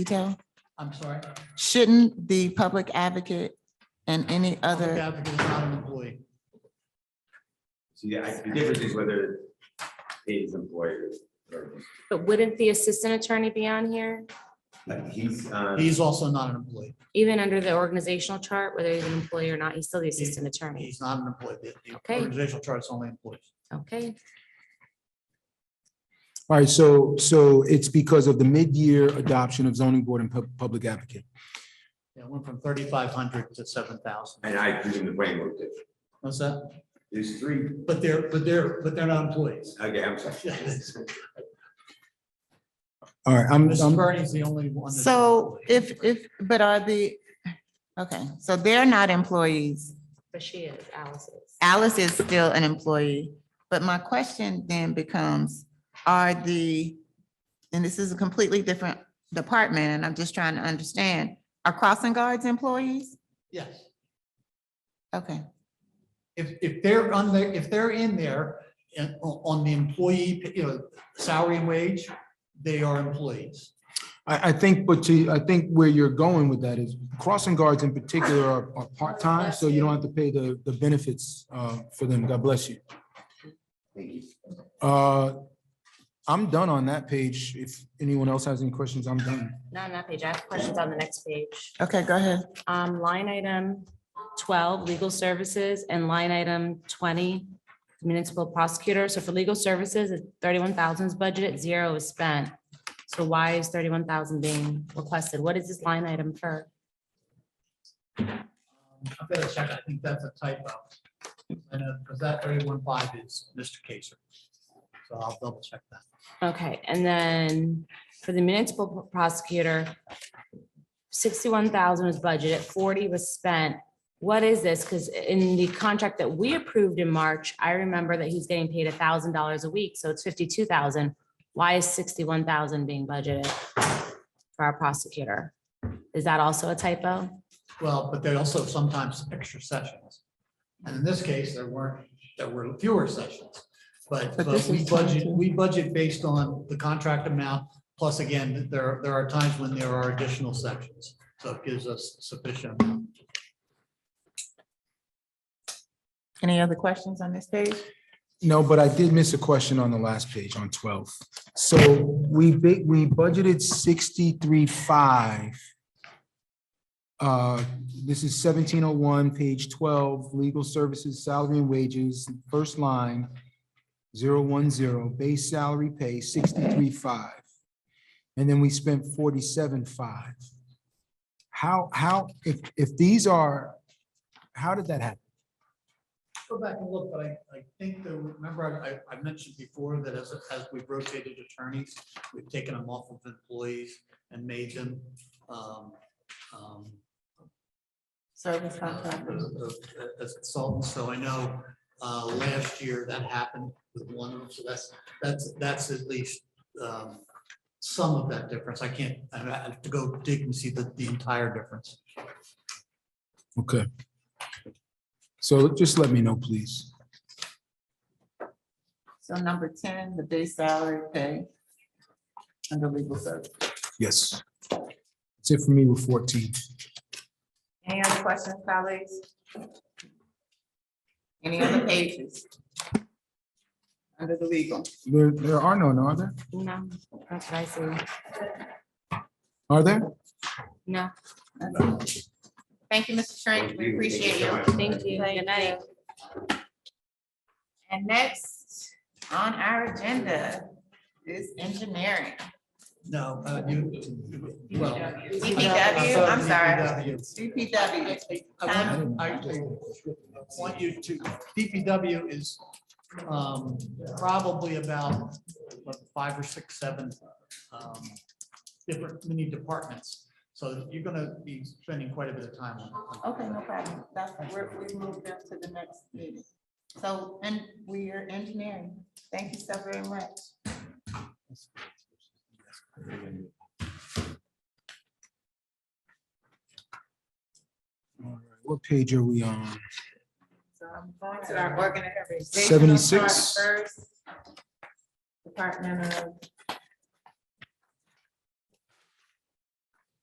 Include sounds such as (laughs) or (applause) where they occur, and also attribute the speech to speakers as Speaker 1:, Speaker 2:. Speaker 1: detail?
Speaker 2: I'm sorry.
Speaker 1: Shouldn't the public advocate and any
Speaker 2: Public
Speaker 1: other,
Speaker 2: advocate is not an employee.
Speaker 3: See, I- the difference is whether he's employed or,
Speaker 4: But wouldn't the assistant attorney be on here,
Speaker 3: like, he's, um,
Speaker 2: He's also not an employee.
Speaker 4: even under the organizational chart, whether he's an employee or not, he's still the assistant attorney?
Speaker 2: He's not an employee. The- The
Speaker 4: Okay.
Speaker 2: organizational chart's only employees.
Speaker 4: Okay,
Speaker 5: All right, so, so it's because of the mid-year adoption of zoning board and pub- public advocate.
Speaker 2: It went from thirty-five hundred to seven thousand.
Speaker 3: and I presume the brain worked it.
Speaker 2: What's that?
Speaker 3: There's three,
Speaker 2: But they're, but they're, but they're not
Speaker 3: (laughs)
Speaker 2: employees.
Speaker 3: okay, I'm sorry.
Speaker 2: (laughs) Yes.
Speaker 5: All right, I'm,
Speaker 2: Mrs.
Speaker 5: I'm,
Speaker 2: Bernie's the only one. that's an
Speaker 1: so
Speaker 2: employee.
Speaker 1: if, if, but are the, okay, so they're not employees.
Speaker 4: but she is, Alice is.
Speaker 1: Alice is still an employee, but my question then becomes, are the, and this is a completely different department, and I'm just trying to understand, are crossing guards employees?
Speaker 2: Yes.
Speaker 1: Okay,
Speaker 2: If, if they're on there, if they're in there and o- on the employee, you know, salary and wage, they are employees.
Speaker 5: I, I think, but to, I think where you're going with that is crossing guards in particular are, are part-time, so you don't have to pay the, the benefits, uh, for them. God bless you.
Speaker 3: Thank you.
Speaker 5: Uh, I'm done on that page. If anyone else has any questions, I'm done.
Speaker 4: Not on that page, I have questions on the next page.
Speaker 1: okay, go ahead.
Speaker 4: Um, line item twelve, legal services, and line item twenty, municipal prosecutor. So for legal services, it's thirty-one thousands budget, zero is spent. So why is thirty-one thousand being requested? What is this line item for?
Speaker 2: Um, I've got to check. I think that's a typo. I know, because that thirty-one five is Mr. Kaser. So I'll double check that.
Speaker 4: Okay, and then for the municipal prosecutor, sixty-one thousand was budgeted, forty was spent. What is this? Because in the contract that we approved in March, I remember that he's getting paid thousand dollars a week, so it's fifty-two thousand. Why is sixty-one thousand being budgeted for our prosecutor? Is that also a typo?
Speaker 2: Well, but there are also sometimes extra sessions. And in this case, there weren't, there were fewer sessions. But,
Speaker 1: But
Speaker 2: but
Speaker 1: this
Speaker 2: we
Speaker 1: is
Speaker 2: budget,
Speaker 1: 22.
Speaker 2: we budget based on the contract amount. Plus again, there, there are times when there are additional sessions. So it gives us sufficient. amount.
Speaker 1: Any other questions on this page?
Speaker 5: No, but I did miss a question on the last page on twelve. So we big, we budgeted sixty-three five. Uh, this is seventeen oh one, page twelve, legal services, salary and wages, first line. Zero one zero, base salary pay sixty-three five. And then we spent forty-seven five. How, how, if, if these are, how did that happen?
Speaker 2: Go back and look, but I, I think the, remember, I, I- I mentioned before that as, as we've rotated attorneys, we've taken them off of employees and made them, um, um,
Speaker 1: Service
Speaker 2: uh, as consultants, so I know uh, last year that happened with one of them, so that's, that's, that's at least um, some of that difference. I can't, I have to go dig and see the, the entire difference.
Speaker 5: Okay. So just let me know, please.
Speaker 1: So number ten, the base salary pay under legal service.
Speaker 5: Yes. That's it for me with fourteen.
Speaker 1: Any other questions, colleagues? Any other pages? Under the legal.
Speaker 5: There, there are none, are there?
Speaker 4: No, that's what I see.
Speaker 5: Are there?
Speaker 4: No,
Speaker 1: Thank you, Mr. Strange. We appreciate you.
Speaker 4: thank you. Good night.
Speaker 1: And next on our agenda is engineering.
Speaker 2: No, uh, you, well.
Speaker 1: DPW, I'm sorry. DPW.
Speaker 2: I want- I want you to, DPW is um, probably about what, five or six, seven um, different mini departments. So you're gonna be spending quite a bit of time on. on-
Speaker 1: Okay, no problem. That's, we're, we moved them to the next meeting. So, and we are engineering. Thank you so very much.
Speaker 5: All right, What page are we on?
Speaker 1: So I'm going to our organizational chart
Speaker 5: 76.
Speaker 1: first. Department of